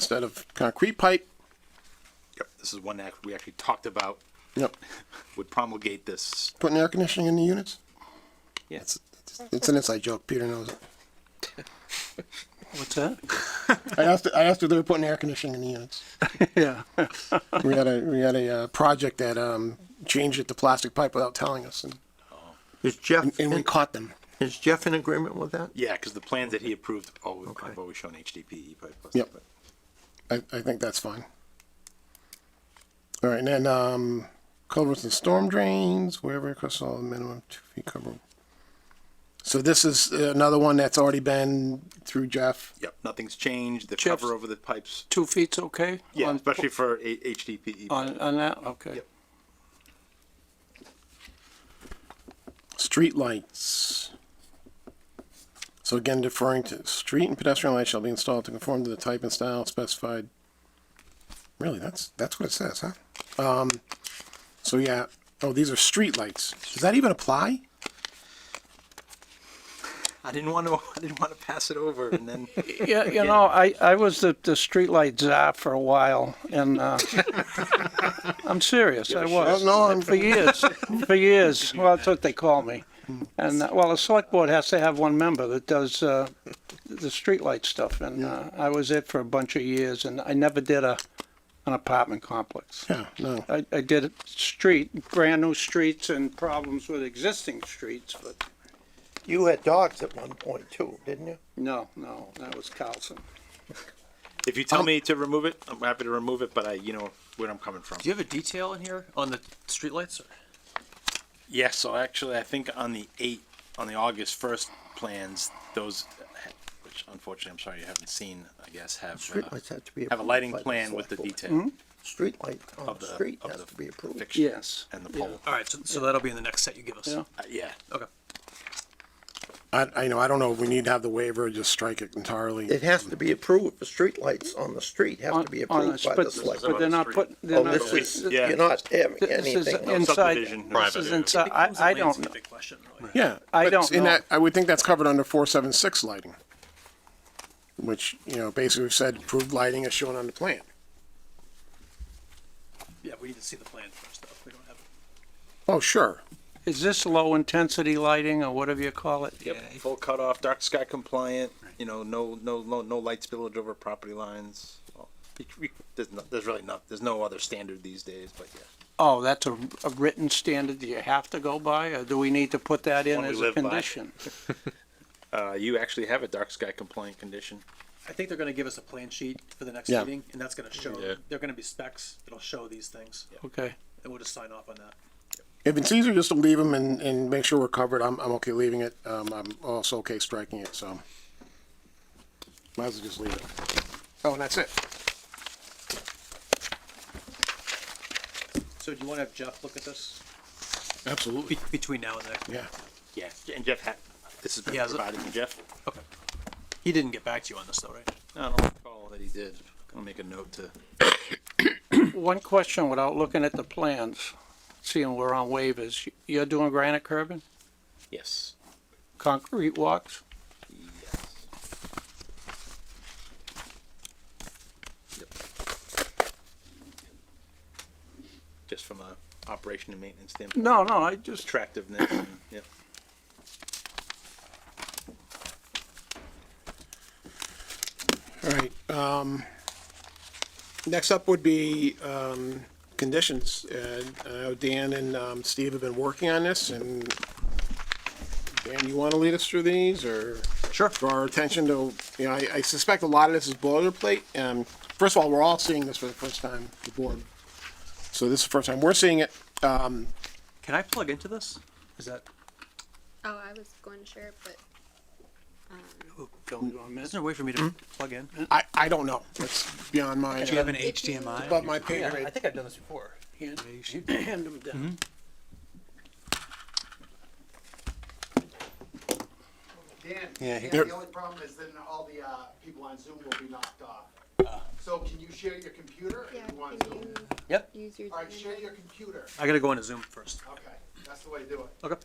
instead of concrete pipe. Yep, this is one that we actually talked about Yep, would promulgate this. putting air conditioning in the units. Yes. It's- It's an inside joke. Peter knows it. What's that? I asked. I asked if they were putting air conditioning in the units. Yeah. We had a we had a uh, project that um, changed it to plastic pipe without telling us, and, Is Jeff, and we in- caught them. is Jeff in agreement with that? Yeah, because the plans that he approved oh, always, Okay. have always shown HDPE. But Yep. I, I think that's fine. All right, and then um, culverts and storm drains, wherever it costs all minimum two feet cover. So this is another one that's already been through Jeff. Yep, nothing's changed. The Jeff's- cover over the pipes. Two feet's okay? Yeah, on- especially for a, HDPE. On, on that, okay. Yep. Street lights. So again, deferring to street and pedestrian lights shall be installed to conform to the type and style specified. Really, that's, that's what it says, huh? Um, so yeah, oh, these are street lights. Does that even apply? I didn't want to. I didn't want to pass it over, and then Yeah, you know, I, I was the, the streetlight czar for a while and, uh, I'm serious, I was. No, I'm, For years, for years. Well, that's what they call me. And, uh, well, the select board has to have one member that does, uh, the streetlight stuff and, uh, I was it for a bunch of years and I never did a, an apartment complex. yeah, no. I, I did street, brand new streets and problems with existing streets, but You had dogs at one point too, didn't you? no, no, that was Carlson. if you tell me to remove it, I'm happy to remove it. But I, you know where I'm coming from. Do you have a detail in here on the streetlights? Yeah. So actually, I think on the eight, on the August first plans, those, which unfortunately I'm sorry you haven't seen, I guess have uh, Streetlights have to be. have a approved lighting by the plan with the select detail board. Hmm? Streetlight on of the the street of has the to be approved. fixture Yes. and the pole. All right, so, so that'll be in the next set you give us. Yeah. Uh, yeah. Okay. I, I know, I don't know if we need to have the waiver, or just strike it entirely. It has to be approved, the streetlights on the street have On- to be on approved the- by but- the select. But board. they're not putting, they're Oh, not. this is, th- yeah. you're not having This is anything. inside, subdivision. this is Private. inside, I, I don't, Big question, really. Yeah. I but don't in know. that- I would think that's covered under four seven six lighting. Which, you know, basically we've said approved lighting is shown on the plan. Yeah, we need to see the plan first, though. We don't have it. Oh, sure. is this low intensity lighting or whatever you call it? Yep. Full cutoff, dark sky compliant. You know, no, no, no, no light spillage over property lines. Well, we- we- There's, no, there's really not. There's no other standard these days, but yeah. Oh, that's a, a written standard that you have to go by, or do we need to put that in One we as a live by. condition? Uh, you actually have a dark sky compliant condition. I think they're gonna give us a plan sheet for the next Yeah. meeting, and that's gonna show, Yeah. they're gonna be specs, it'll show these things, Okay, and we'll just sign off on that. If it's easier just to leave them and, and make sure we're covered, I'm, I'm okay leaving it. Um, I'm also okay striking it, so. Might as well just leave it. Oh, and that's it. So do you wanna have Jeff look at this Absolutely. be- between now and the next? meeting? Yeah. Yeah, and Jeff had. This has been He has it? provided to Jeff. Okay. He didn't get back to you on this, though, right? I don't recall that he did. I'll make a note to. one question without looking at the plans, seeing we're on waivers, you're doing granite curbing, Yes. concrete walks? Yes. Yep. Just from a operation and maintenance standpoint. No, no, I just Attractiveness. And, yep. All right, um, next up would be, um, conditions. And, uh, Dan and, um, Steve have been working on this and Dan, you wanna lead us through these or? Sure. Draw our attention to, you know, I, I suspect a lot of this is boilerplate. Um, first of all, we're all seeing this for the first time, the board. So this is the first time we're seeing it. Can I plug into this? Is that, Oh, I was going to share it, but is there a way for me to plug in? Do I, I don't know. That's beyond my, you have uh, an HDMI? above my pay grade. think I've done this before. Hand hand them down. Dan, Yeah, he- Dan, There- the only problem is then all the, uh, people on Zoom will be knocked off. So can you share your computer yeah, if you want can Zoom? you Yep. use your Alright, share internet? your computer. I gotta go into Zoom first. Okay, that's the way to do it. Okay.